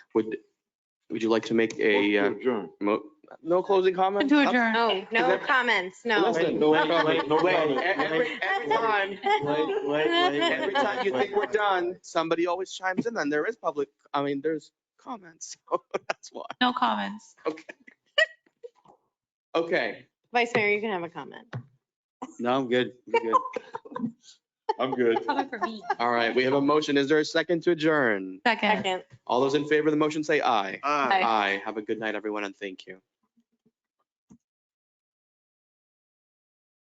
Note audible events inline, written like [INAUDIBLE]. Would, would you like to make a, uh, Adjourn. mo- no closing comment? To adjourn. No, no that- comments, no. Listen, No wait, comment, no wait, comment. every- every time, Wait, wait, wait. every time you think we're done, somebody always chimes in and there is public, I mean, there's comments. [LAUGHS] So That's why. No comments. Okay. [LAUGHS] Vice Mayor, you can have a comment. No, I'm good. I'm good. [LAUGHS] I'm good. Comment for me. All right, we have a motion. Is there a second to adjourn? Second. Second. All those in favor of the motion say aye. Ah. Aye. Aye. Have a good night, everyone, and thank you.